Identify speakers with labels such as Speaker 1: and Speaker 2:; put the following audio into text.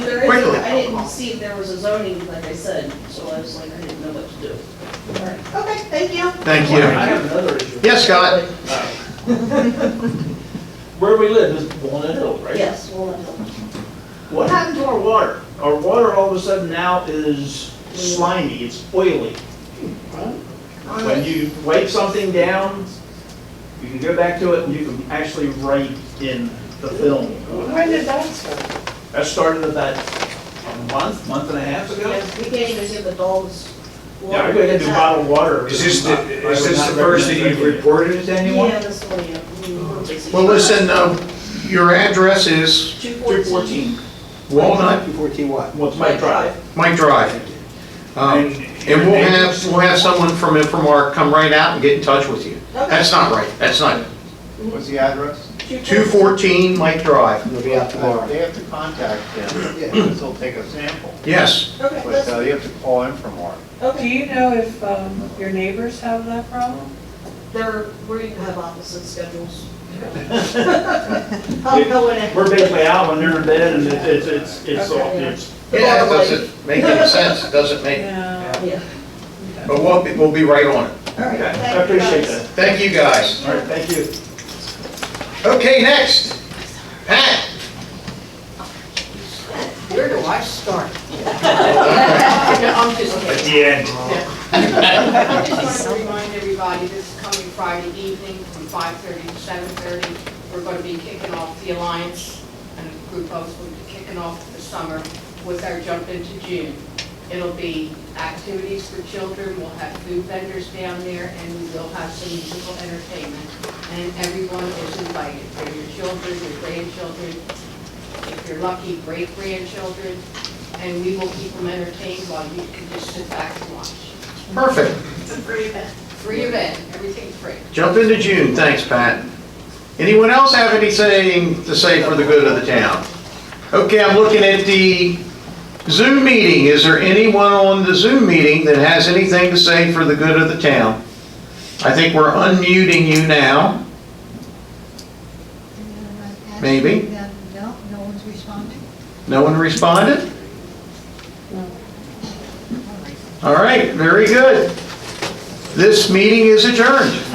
Speaker 1: quickly.
Speaker 2: I didn't see if there was a zoning, like I said, so I was like, I didn't know what to do.
Speaker 3: Okay, thank you.
Speaker 1: Thank
Speaker 4: I
Speaker 1: you.
Speaker 4: have another issue.
Speaker 1: Yes, Scott?
Speaker 4: Where we live is Walnut Hill, right?
Speaker 2: Yes, well, I
Speaker 4: What happened to our water? Our water all of a sudden now is slimy, it's oily. When you wipe something down, you can go back to it and you can actually write in the film.
Speaker 3: When did that start?
Speaker 4: That started about a month, month and a half ago.
Speaker 2: don't- we can't even give adults.
Speaker 4: Yeah, I go ahead and do bottled water.
Speaker 5: Is this, the-
Speaker 4: I would
Speaker 5: is this
Speaker 4: not
Speaker 5: the first that
Speaker 4: recommend
Speaker 5: you've
Speaker 4: drinking it.
Speaker 5: reported it to anyone?
Speaker 2: Yeah, this one, yeah. we were busy.
Speaker 1: Well, listen, um, your address is
Speaker 2: Two
Speaker 4: 214,
Speaker 1: Walnut,
Speaker 4: what's my drive?
Speaker 1: Mike Drive. Um, And we'll have, we'll have someone from Infomark come right out and get in touch with you. That's not right, that's not,
Speaker 6: What's the address?
Speaker 1: 214 Mike Drive.
Speaker 7: It'll be out tomorrow.
Speaker 6: They have to contact them, because they'll take a sample,
Speaker 1: Yes,
Speaker 3: Okay,
Speaker 6: but
Speaker 3: let's-
Speaker 6: uh, you have to call in for more.
Speaker 1: uh,
Speaker 3: okay.
Speaker 8: Do you know if um, your neighbors have that problem?
Speaker 2: There, we have opposite schedules. I'll go in and-
Speaker 4: We're basically out when they're in bed and it's, it's, it's, it's, all- it's,
Speaker 1: yeah, it doesn't make any sense, it doesn't make,
Speaker 8: No.
Speaker 2: Yeah.
Speaker 1: but we'll, be- we'll be right on it.
Speaker 3: All right,
Speaker 4: okay,
Speaker 3: thank
Speaker 4: I
Speaker 3: you,
Speaker 4: appreciate
Speaker 3: guys.
Speaker 4: that.
Speaker 1: Thank you, guys.
Speaker 4: All right, thank you.
Speaker 1: Okay, next, Pat.
Speaker 2: Where do I start? I'm just
Speaker 5: At
Speaker 2: kidding.
Speaker 5: the end.
Speaker 9: I just want to remind everybody, this is coming Friday evening from 5:30 to 7:30. We're going to be kicking off the Alliance and a group of us will be kicking off the summer with our jump into June. It'll be activities for children, we'll have food vendors down there, and we will have some musical entertainment. And everyone is invited, for your children, your grandchildren, if you're lucky, great-grandchildren, and we will keep them entertained while you can just sit back and watch.
Speaker 1: Perfect.
Speaker 3: It's a free event.
Speaker 9: Free event, everything's free.
Speaker 1: Jump into June, thanks, Pat. Anyone else have anything to say for the good of the town? Okay, I'm looking at the Zoom meeting. Is there anyone on the Zoom meeting that has anything to say for the good of the town? I think we're unmuting you now. Maybe.
Speaker 10: No, no one's responding.
Speaker 1: No one responded? All right, very good. This meeting is adjourned.